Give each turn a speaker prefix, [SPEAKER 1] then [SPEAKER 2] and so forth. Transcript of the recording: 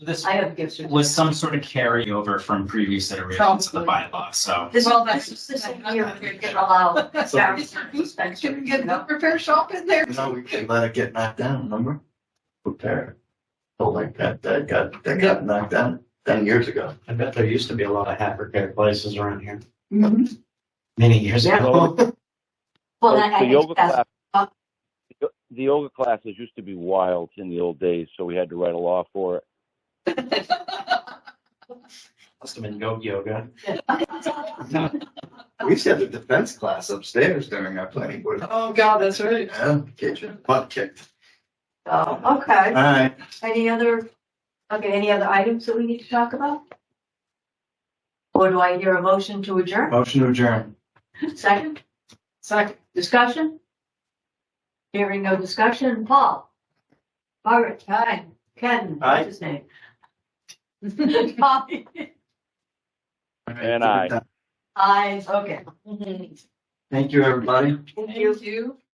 [SPEAKER 1] This
[SPEAKER 2] I have gift certificates.
[SPEAKER 1] was some sort of carryover from previous iterations of the bylaw, so.
[SPEAKER 2] This
[SPEAKER 3] Well,
[SPEAKER 2] all
[SPEAKER 3] that's
[SPEAKER 2] that's
[SPEAKER 3] just
[SPEAKER 2] just
[SPEAKER 3] this
[SPEAKER 2] year we can allow.
[SPEAKER 4] So-
[SPEAKER 3] Can we get the repair shop in there?
[SPEAKER 4] No, we can let it get knocked down, remember? Repair. Oh, like that, that got, that got knocked down ten years ago.
[SPEAKER 5] I bet there used to be a lot of hat repair places around here
[SPEAKER 2] Mm-hmm.
[SPEAKER 3] Mhm.
[SPEAKER 5] many years
[SPEAKER 2] Yeah.
[SPEAKER 5] ago.
[SPEAKER 2] Well,
[SPEAKER 6] So
[SPEAKER 2] that, I
[SPEAKER 6] the yoga
[SPEAKER 2] think that's, oh.
[SPEAKER 6] class, the- the yoga classes used to be wild in the old days, so we had to write a law for it.
[SPEAKER 5] Must have been goat yoga.
[SPEAKER 4] We used to have the defense class upstairs during our planning board.
[SPEAKER 3] Oh, God, that's right.
[SPEAKER 4] Yeah, kitchen, butt kicked.
[SPEAKER 2] oh, okay.
[SPEAKER 4] Alright,
[SPEAKER 2] Any other, okay, any other items that we need to talk about? Or do I hear a motion to adjourn?
[SPEAKER 4] motion to adjourn.
[SPEAKER 2] Second,
[SPEAKER 3] Second.
[SPEAKER 2] discussion? Hearing no discussion, Paul? Margaret, hi, Ken,
[SPEAKER 4] Aye.
[SPEAKER 2] what's his name? Aye,
[SPEAKER 6] And I.
[SPEAKER 2] Aye, okay.
[SPEAKER 3] Mm-hmm.
[SPEAKER 4] Thank you, everybody.
[SPEAKER 2] Thank you.
[SPEAKER 3] Thank you.